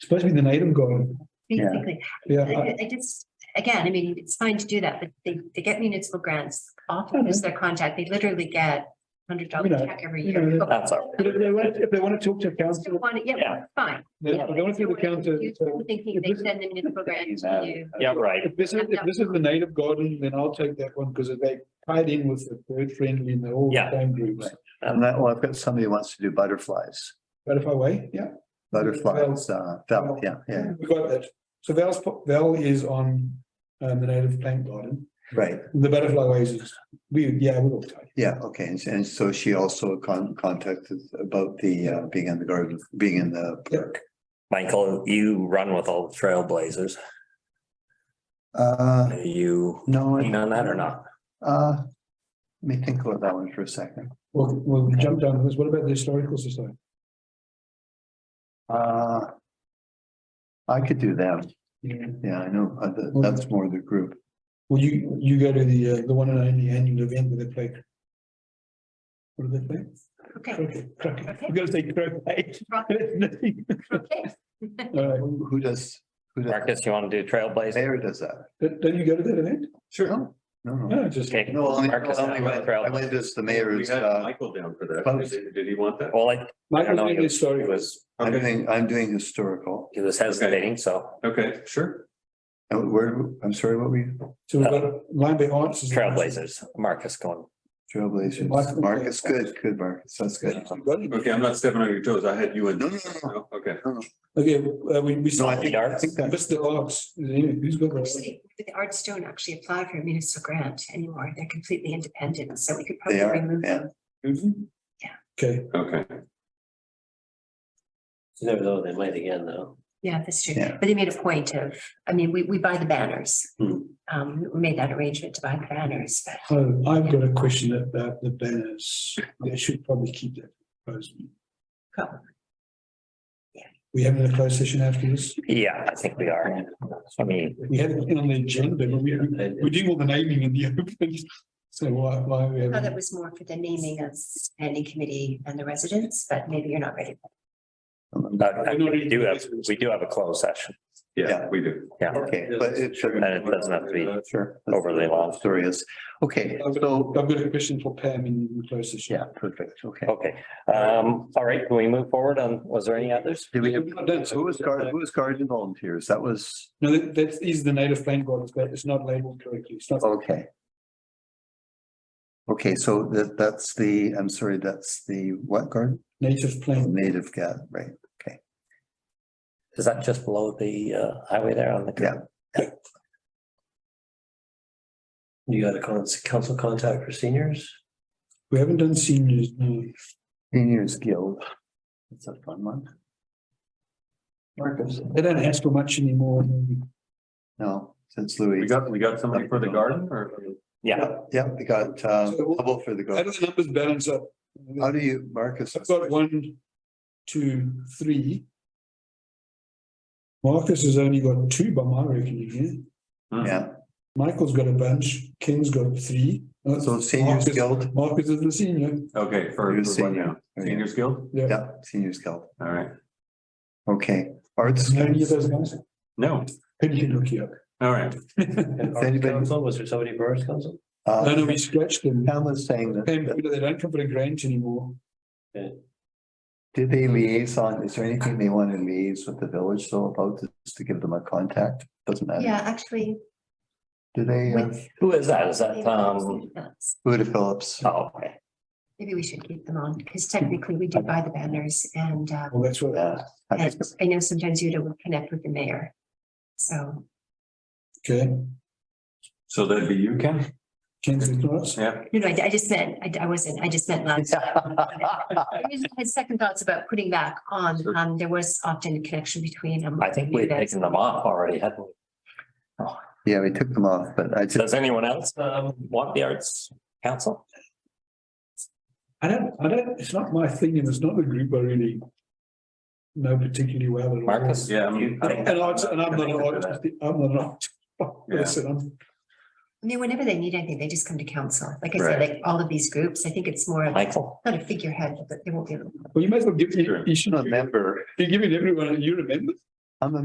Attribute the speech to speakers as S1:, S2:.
S1: supposed to be the night I'm going.
S2: Yeah.
S3: Basically,
S1: Yeah,
S3: I,
S1: I-
S3: I- I just, again, I mean, it's fine to do that, but they, they get municipal grants often as their contact. They literally get hundred dollar
S1: You know,
S3: check every
S1: you know,
S3: year.
S2: That's all
S1: But if they want, if they want to talk to
S3: Still
S1: council,
S3: want it, yeah,
S2: Yeah.
S3: fine.
S1: they they want to
S3: Still
S1: talk to
S3: want to
S1: council.
S3: use
S1: so
S3: them Thinking they
S1: If this-
S3: send the municipal grant to you.
S2: Yeah, right.
S1: If this is, if this is the night of garden, then I'll take that one because they tied in with the bird friendly and the whole
S2: Yeah.
S1: time groups.
S4: And that, well, I've got somebody who wants to do butterflies,
S1: But if I wait, yeah.
S4: butterflies, uh, felt, yeah, yeah,
S1: We got that. So Val's, po- Val is on um the native plant garden.
S4: right.
S1: The butterfly ways is, we, yeah, we're all tied.
S4: Yeah, okay, and, and so she also con- contacted about the, uh, being in the garden, being in the park.
S2: Michael, you run with all the trailblazers.
S4: Uh,
S2: Are you
S4: no. I-
S2: keen on that or not?
S4: Uh, let me think about that one for a second.
S1: Well, we'll jump down to this. What about the historical society?
S4: Uh. I could do that,
S1: Yeah.
S4: yeah, I know, uh, th- that's more the group.
S1: Well, you, you go to the, uh, the one and only annual event where they play. What do they play?
S3: Okay,
S1: Croquet, croquet.
S3: Okay.
S1: I'm gonna say croquet.
S3: okay.
S1: All right.
S4: Who who does, who does,
S2: Marcus, you want to do trailblazers?
S4: mayor does that?
S1: Don't don't you go to that event?
S4: No, no, no.
S1: No, just.
S2: Okay.
S4: No, only,
S2: Marcus,
S4: only
S2: I'm on
S4: when,
S2: the trail.
S4: I went as the
S5: We
S4: mayor's,
S5: had
S4: uh,
S5: Michael down for that.
S4: post.
S5: Did- Did he want that?
S2: Well, I-
S1: Michael's
S2: know,
S1: doing
S2: it was-
S5: It
S1: historical.
S5: was,
S4: I'm
S5: okay,
S4: doing, I'm doing historical.
S2: he was hesitating, so
S5: okay, sure.
S4: And where, I'm sorry, what were you,
S1: So
S2: uh,
S1: we've got Lion Bay Arts. is-
S2: trailblazers, Marcus going.
S4: Trailblazers, Marcus, good, good, Marcus, that's good.
S5: Okay, I'm not stepping on your toes. I had you in.
S4: No, no, no, no.
S5: Okay.
S1: Okay, uh, we, we.
S4: No, I think, I
S2: Darts.
S4: think that,
S1: That's the arts. Who's got that?
S3: Actually, The arts don't actually apply for a municipal grant anymore. They're completely independent, so we could
S4: They
S3: probably
S4: are,
S3: remove
S4: yeah.
S3: them.
S1: Okay,
S5: Okay.
S6: Never know, they might again though.
S3: Yeah, that's true.
S4: Yeah.
S3: But they made a point of, I mean, we, we buy the banners.
S6: Hmm.
S3: Um, we made that arrangement to buy the banners, but
S1: so I've got a question about the banners. They should probably keep that. proposed.
S3: Probably. Yeah.
S1: We having a closed session after this?
S2: Yeah, I think we are. I mean,
S1: We had it on the agenda, but we, we do all the naming in the open. So why, why are we
S3: I thought that
S1: having?
S3: was more for the naming of standing committee and the residents, but maybe you're not ready.
S2: but we do have, we do have a closed session.
S5: Yeah, Uh,
S4: Yeah.
S5: we do.
S4: okay, but it
S2: And
S4: should.
S2: it doesn't have to be
S4: Sure.
S2: overly long.
S4: Story is, okay, so,
S1: I've got a question for Pam in the closed session.
S4: yeah, perfect, okay.
S2: Okay, um, all right, can we move forward on, was there any others?
S4: Do we have,
S1: We've not done so.
S4: who was guard, who was guardian volunteers? That was,
S1: No, that, that is the native plant garden, but it's not labeled correctly. It's not,
S4: okay. Okay, so that, that's the, I'm sorry, that's the what garden?
S1: native plant.
S4: Native gat, right?
S2: Is that just below the uh highway there on the?
S4: Yeah.
S6: You got a cons- council contact for seniors?
S1: We haven't done seniors, no.
S4: Seniors Guild. That's a fun one. Marcus,
S1: They don't ask for much anymore.
S4: no, since Louis.
S5: We got, we got somebody for the garden or?
S2: Yeah,
S4: Yeah, yeah, we got, uh,
S1: So we'll-
S4: double for the
S1: How
S4: garden.
S1: do the numbers balance up?
S4: How do you, Marcus?
S1: I've got one, two, three. Marcus has only got two by my reckoning here.
S4: Yeah,
S1: Michael's got a bunch, Ken's got three. Uh,
S4: so seniors
S1: Marcus-
S4: guild.
S1: Marcus is the senior.
S5: Okay, for,
S4: You're
S5: for what
S4: senior.
S5: now? Seniors Guild?
S1: Yeah.
S4: Yeah, seniors guild.
S5: All right.
S4: Okay, arts.
S1: No, any of those guys?
S5: No,
S1: Who do you look here?
S5: all right.
S6: And
S4: Has anybody-
S6: council, was there somebody for arts council?
S1: No, no,
S4: Uh,
S1: we scratched them.
S4: Pam was saying that,
S1: Pam,
S4: that-
S1: they don't come for a grant anymore.
S4: did they liaison, is there anything they want to liaise with the village though about this to give them a contact? Doesn't matter.
S3: Yeah, actually.
S4: Do they, uh,
S3: with-
S2: who is that? Is that um?
S4: Buda Phillips?
S2: Oh, okay.
S3: Maybe we should keep them on, because technically we do buy the banners and, uh,
S1: Well, that's what.
S4: Yeah, I
S3: and
S4: think-
S3: I know sometimes Uta will connect with the mayor. So,
S1: Okay,
S5: So that'd be you, Ken?
S1: Ken's with us.
S5: Yeah.
S3: no, no, I, I just meant, I, I wasn't, I just meant last. I just had second thoughts about putting back on,
S5: Sure.
S3: um, there was often a connection between. um,
S2: I think we've
S3: Uta.
S2: taken them off already, hadn't we?
S4: Yeah, we took them off, but I just,
S2: Does anyone else um want the arts council?
S1: I don't, I don't, it's not my thing and it's not a group I really know particularly well. at all.
S2: Marcus?
S5: Yeah, I'm-
S2: You-
S5: I
S1: And I, and I'm not, an artist, I'm not. an artist.
S5: Yeah.
S1: Listen, I'm-
S3: I mean, whenever they need anything, they just come to council. Like I said,
S5: Right.
S3: like all of these groups, I think it's more like,
S2: Michael,
S3: not a figurehead, but they won't be.
S1: well, you might as well give, you
S5: Sure.
S1: you should
S4: not
S1: not,
S4: a member,
S1: you're giving everyone, you remember?